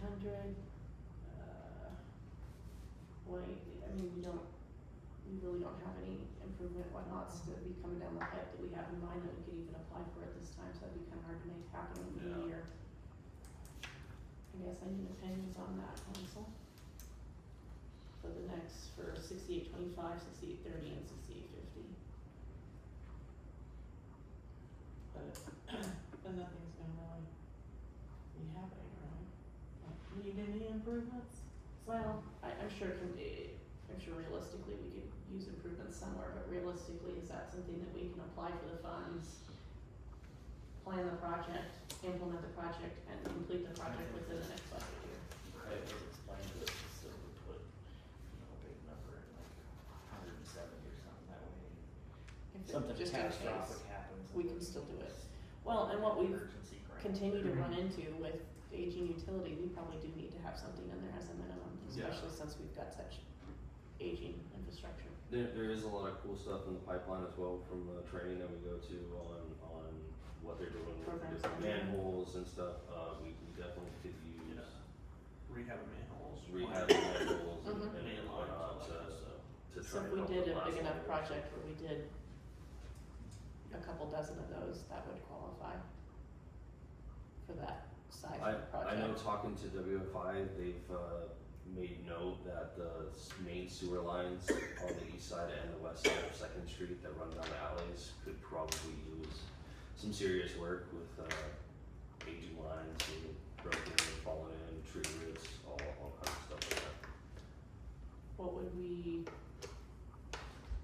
hundred, uh, point, I mean, we don't, we really don't have any improvement whatnots that would be coming down the pipe that we have in mind that we could even apply for at this time, so that'd be kinda hard to make happen in the Yeah. year. I guess I need opinions on that, council. For the next, for sixty-eight twenty-five, sixty-eight thirty, and sixty-eight fifty. But, but nothing's gonna really be happening, right? Like, We need any improvements? Well, I, I'm sure it can be, I'm sure realistically we could use improvements somewhere, but realistically, is that something that we can apply for the funds? Plan the project, implement the project, and complete the project within the next budget year? Craig was explaining to us, just so we put, you know, a big number in like hundred and seventy or something, that way If it- something just in case, catastrophic happens. we can still do it. Well, and what we've Emergency grant. Continue to run into with aging utility, we probably do need to have something in there as a minimum, Yeah. especially since we've got such aging infrastructure. There, there is a lot of cool stuff in the pipeline as well from the training that we go to on, on what they're doing with the Programs different and- manholes and stuff, uh, we, we definitely could use rehab manholes. rehab manholes and, Man Mhm. and lines, all that whatnot to, kind of stuff. to So try if and we help did a with big last enough year. project where we did a couple dozen of those, that would qualify for that size I, of I know project. talking to WFI, they've, uh, made note that the s- main sewer lines on the east side and the west side of Second Street that run down the alleys could probably use some serious work with, uh, aging lines being broken and fallen in, tree roots, all, all kinds of stuff like that. What would we,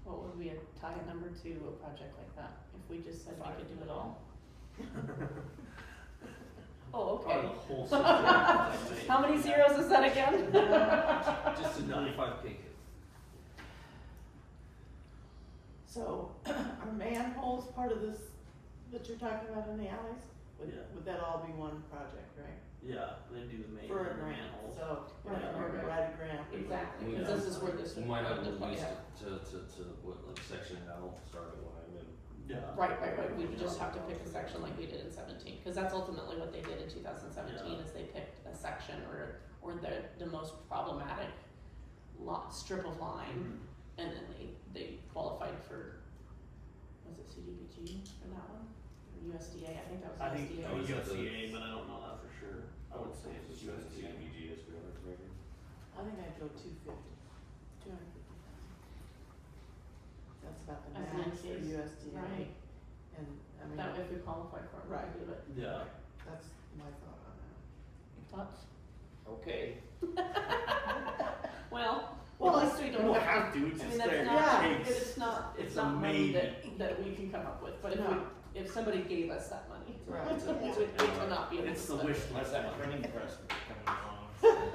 what would we tie a number to a project like that, if we just said we could do it all? Oh, Part of the okay, whole system. how many zeros is that again? Just a ninety-five pig. So, are manholes part of this that you're talking about in the alleys? Would, Yeah. would that all be one project, right? Yeah, they do the main For a grant, manholes. so, we're Right, gonna right, write a grant. Exactly, Yeah. cause this is where this We would. might have come to into play. release Yeah. it to, to, to, what, like section L, starting line and Yeah. Right, right, right, we would just have to pick a section like we did in seventeen, cause that's ultimately what they did in two thousand seventeen, Yeah. is they picked a section or, or the, the most problematic lot, strip of line, and then they, they qualified for, was it CDBG for that one? Or USDA, I think that was I USDA. think Oh, is that the- USDA, but I don't know that for sure. I would say it's USDA. CDBG is correct, maybe? I think I'd go two fifty, two hundred fifty thousand. That's about the As an max for increase, USDA. Right, And, I mean, that way if we qualify for it, we Right. could do it, Yeah. that's my thought on that. thoughts? Okay. Well, Well, at least we don't We'll have to have to, it's I mean, just that's there. not, Yeah. it's not, it's it's a not money maybe. that, that we can come up with, but if No. we, if somebody gave us that money, Right. it would, it would not be able to It's the spend. wish Unless list. that printing press was coming along.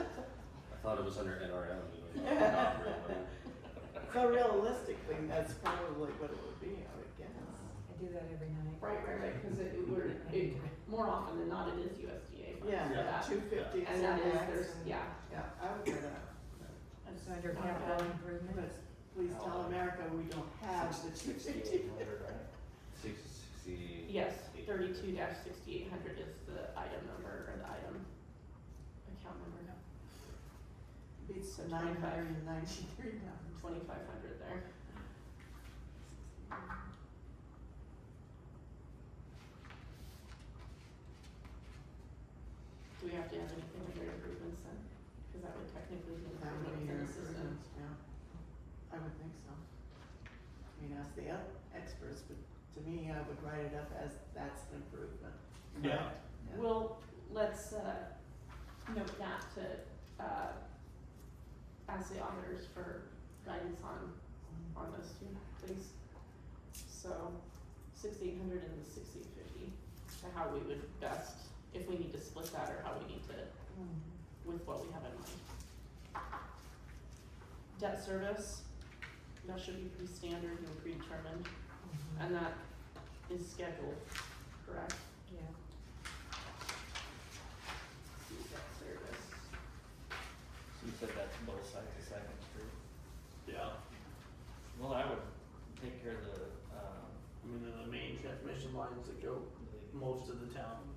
I thought it was under NRM, you know, not real money. So realistically, that's probably what it would be, I would guess. I do that every night. Right, right, right, cause it, it were, it, more often than not, it is USDA funds for Yeah, that, two fifty is and the that is, max, there's, and- yeah. yeah, I would go that. that's So under not capital bad. improvement, But please tell America we don't have the two fifty. Sixty-eight hundred, right? Six, sixty. Yes, thirty-two sixty-eight hundred is the item number, or the item, account number, Beats So the nine hundred and ninety-three dollars. twenty-five hundred there. Do we have to have anything under improvements then? Cause that would technically be an That improvement would be in your the system. improvements, yeah. I would think so. I mean, ask the e- experts, but to me, I would write it up as that's an improvement. Yeah. Yeah. Well, let's uh note that to uh ask the auditors for guidance on on those two, please. So sixteen hundred and sixteen fifty, to how we would best, if we need to split that or how we need to Mm. with what we have in mind. Debt service, that should be pretty standard and predetermined, and that is scheduled, correct? yeah. See debt service. So you said that's both sides of Second Street? Yeah. Well, I would take care of the, um, I mean, they're the main transmission lines that go the most of the town. uh,